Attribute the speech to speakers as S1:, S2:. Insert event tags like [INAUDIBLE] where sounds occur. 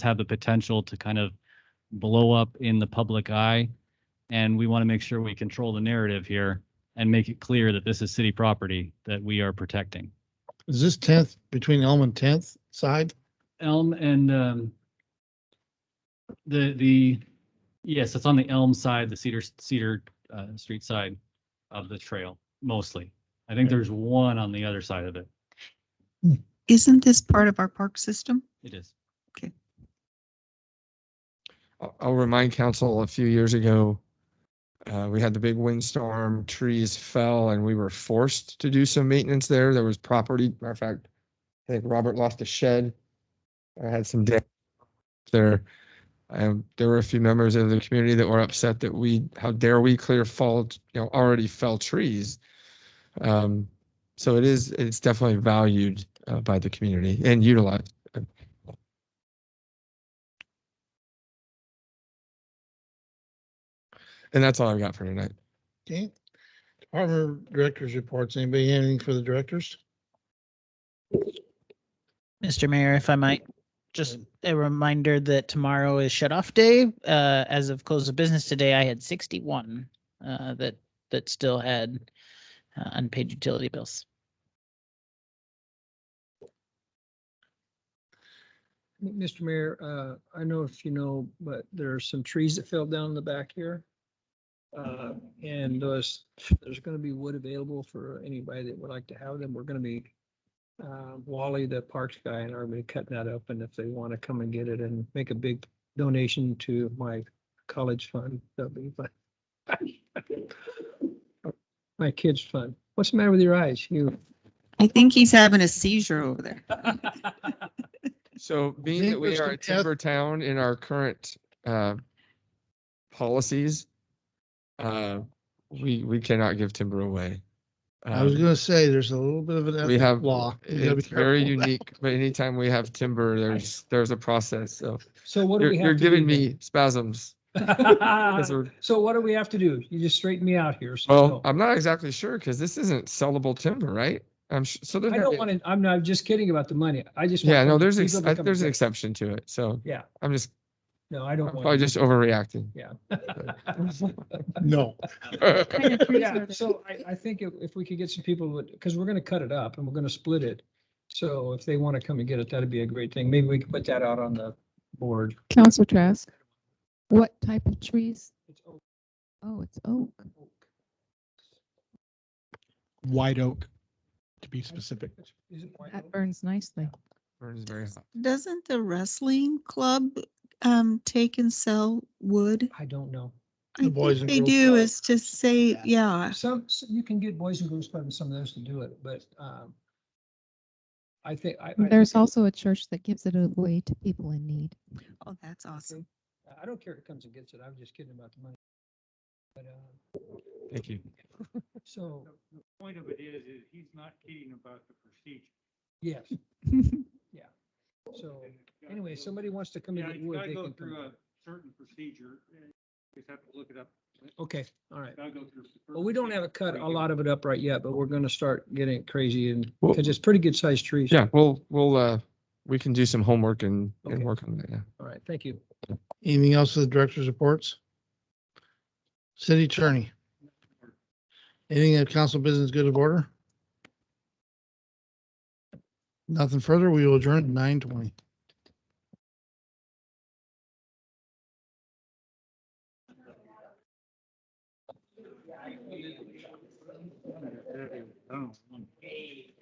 S1: have the potential to kind of blow up in the public eye. And we want to make sure we control the narrative here and make it clear that this is city property that we are protecting.
S2: Is this tenth between Elm and tenth side?
S1: Elm and um, the, the, yes, it's on the Elm side, the Cedar, Cedar uh, Street side of the trail mostly. I think there's one on the other side of it.
S3: Isn't this part of our park system?
S1: It is.
S4: I'll- I'll remind council a few years ago, uh, we had the big windstorm, trees fell, and we were forced to do some maintenance there. There was property, matter of fact, I think Robert lost a shed. I had some damage there. Um, there were a few members of the community that were upset that we, how dare we clear fall, you know, already fell trees. Um, so it is, it's definitely valued uh, by the community and utilized. And that's all I've got for tonight.
S2: Okay. Department directors reports. Anybody have anything for the directors?
S5: Mr. Mayor, if I might, just a reminder that tomorrow is shut off day. Uh, as of close of business today, I had sixty-one, uh, that, that still had uh, unpaid utility bills.
S6: Mr. Mayor, uh, I know if you know, but there are some trees that fell down in the back here. Uh, and there's, there's gonna be wood available for anybody that would like to have them. We're gonna be uh, Wally, the parks guy, and are gonna be cutting that up, and if they wanna come and get it and make a big donation to my college fund, that'd be fun. [LAUGHS] My kids' fund. What's the matter with your eyes?
S4: [LAUGHS]
S6: You,
S3: I think he's having a seizure over there.
S4: So being
S2: think
S4: that we
S2: there's
S4: are
S2: some
S4: a
S2: eth-
S4: timber town in our current uh, policies, uh, we, we cannot give timber away.
S2: I was
S4: Um,
S2: gonna say, there's a little bit of an
S4: We
S2: ethic
S4: have,
S2: law. You gotta be
S4: it's very
S2: careful.
S4: unique, but anytime we have timber, there's, there's a process. So
S6: so what do
S4: you're,
S6: we have?
S4: you're
S6: to do
S4: giving
S6: then? Uh,
S4: me spasms. [LAUGHS]
S6: [LAUGHS]
S4: 'cause we're-
S6: So what do we have to do? You just straighten me out here. so-
S2: Oh.
S4: Well, I'm not exactly sure because this isn't sellable timber, right? I'm, su- so there's.
S6: I
S4: gotta be-
S6: don't want to, I'm not, I'm just kidding about the money. I just. want
S4: Yeah, no,
S6: them
S4: there's,
S6: to- people
S4: ex-
S6: to
S4: I-
S6: come
S4: there's an
S6: get-
S4: exception to it. So.
S6: Yeah.
S4: I'm just,
S6: No, I
S4: I'm
S6: don't
S4: probably
S6: want.
S4: just overreacting.
S6: [LAUGHS] Yeah.
S2: No,
S6: [LAUGHS] Yeah, so I, I think if, if we could get some people, because we're going to cut it up and we're going to split it. So if they want to come and get it, that'd be a great thing. Maybe we can put that out on the board.
S7: Council Trask, what type of trees?
S6: It's oak.
S7: Oh, it's oak.
S8: white oak, to be specific.
S6: Is it white
S7: That
S6: oak?
S7: burns nicely.
S4: Burns very hot.
S3: Doesn't the wrestling club um take and sell wood?
S6: I don't know.
S3: I
S2: The Boys
S3: think
S2: and
S3: They
S2: Girls
S3: do
S2: Club.
S3: is to say, yeah,
S6: Some, s- you can get Boys and Girls Club and some of those to do it, but, um, I think I. I think
S7: There's
S6: it-
S7: also a church that gives it away to people in need. [LAUGHS]
S3: oh, that's awesome.
S6: Uh, I don't care if it comes and gets it. I'm just kidding about the money. But, uh,
S4: Thank you.
S6: So,
S9: The the point of it is, is he's not kidding about the procedure.
S6: yes, yeah.
S9: [LAUGHS]
S6: So anyway, somebody wants to come in
S9: Yeah,
S6: and get
S9: you
S6: wood,
S9: gotta
S6: they
S9: go
S6: can come.
S9: through a
S6: in.
S9: certain procedure, and you just have to look it up.
S6: Okay, all right.
S9: Gotta go through. the
S6: Well, we don't have
S9: procedure
S6: it cut a
S9: before you
S6: lot of it up right yet, but we're gonna start getting it crazy and,
S4: Well-
S6: because it's pretty good sized trees.
S4: Yeah, we'll, we'll, uh, we can do some homework and, and
S6: Okay.
S4: work on that, yeah.
S6: All right, thank you.
S2: Anything else for the directors reports? City attorney. Anything that council business good of order? Nothing further. We will adjourn at nine twenty.
S9: get- Oh.